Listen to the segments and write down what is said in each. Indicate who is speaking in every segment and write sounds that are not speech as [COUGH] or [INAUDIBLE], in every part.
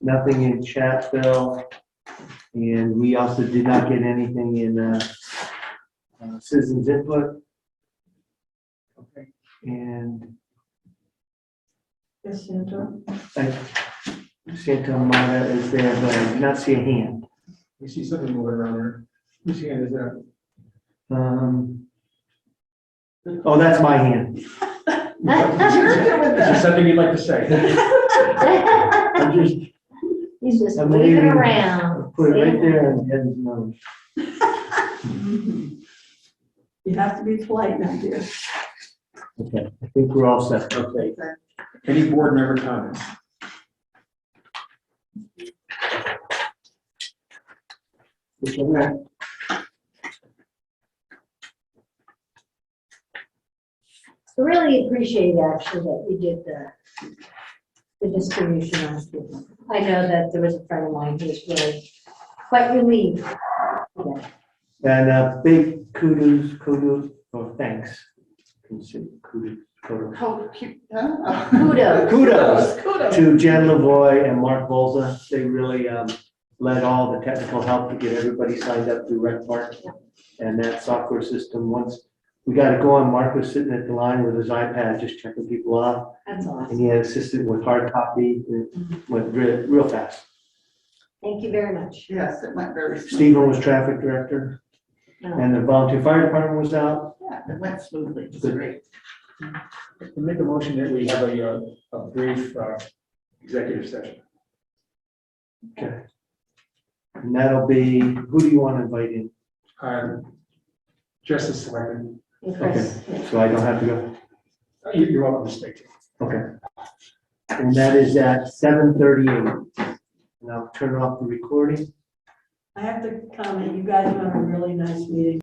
Speaker 1: nothing in Chatville. And we also did not get anything in uh, uh, citizens input. Okay. And
Speaker 2: Yes, Sandra.
Speaker 1: Santa Mara is there, but I did not see a hand.
Speaker 3: We see something moving around there. Whose hand is that?
Speaker 1: Um, Oh, that's my hand.
Speaker 3: Is there something you'd like to say?
Speaker 1: I'm just
Speaker 4: [LAUGHS] He's just
Speaker 1: I'm
Speaker 4: waving
Speaker 1: leaving.
Speaker 4: around.
Speaker 1: put it right there and head no.
Speaker 2: You have to be polite now, dear.
Speaker 1: Okay, I think we're all set.
Speaker 3: Okay. Any board member comments?
Speaker 4: I Really appreciate actually that you did the, the distribution on people. I know that there was a friend of mine who was really quite relieved. Yeah,
Speaker 1: And uh, big kudos, kudos, or thanks. Consider kudos, kudos.
Speaker 2: Oh, keep- huh?
Speaker 4: Kudos.
Speaker 1: Kudos.
Speaker 2: [LAUGHS] Kudos.
Speaker 1: To Jen Lavoy and Mark Bolza, they really um, led all the technical help to get everybody signed up through RecPark. And that software system, once we got it going, Mark was sitting at the line with his iPad, just checking people out.
Speaker 4: That's awesome.
Speaker 1: And he had assisted with hard copy, and it went real, real fast.
Speaker 4: Thank you very much.
Speaker 2: Yes, it went very smoothly.
Speaker 1: Stephen was traffic director,
Speaker 4: No,
Speaker 1: and the volunteer fire department was out.
Speaker 2: Yeah, it went smoothly. It's great.
Speaker 3: Make a motion that we have a, uh, a brief, uh, executive session.
Speaker 1: Okay. And that'll be, who do you want to invite in?
Speaker 3: Um, Justice Selectman,
Speaker 4: and Chris, yeah.
Speaker 1: So I don't have to go,
Speaker 3: uh, you- you're welcome to speak.
Speaker 1: okay. And that is at seven thirty-eight. And I'll turn off the recording.
Speaker 2: I have to comment, you guys were a really nice meeting.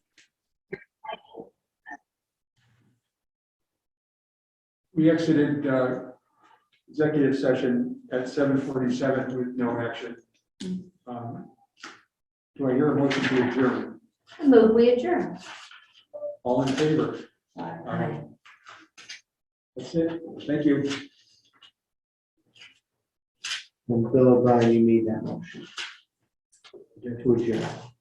Speaker 3: We exited, uh, executive session at seven forty-seven with no action. Um, Do I hear a motion to adjourn?
Speaker 4: Move, we adjourn.
Speaker 3: All in favor? Aye. That's it. Thank you.
Speaker 1: And Bill O'Brien, you made that motion. To adjourn.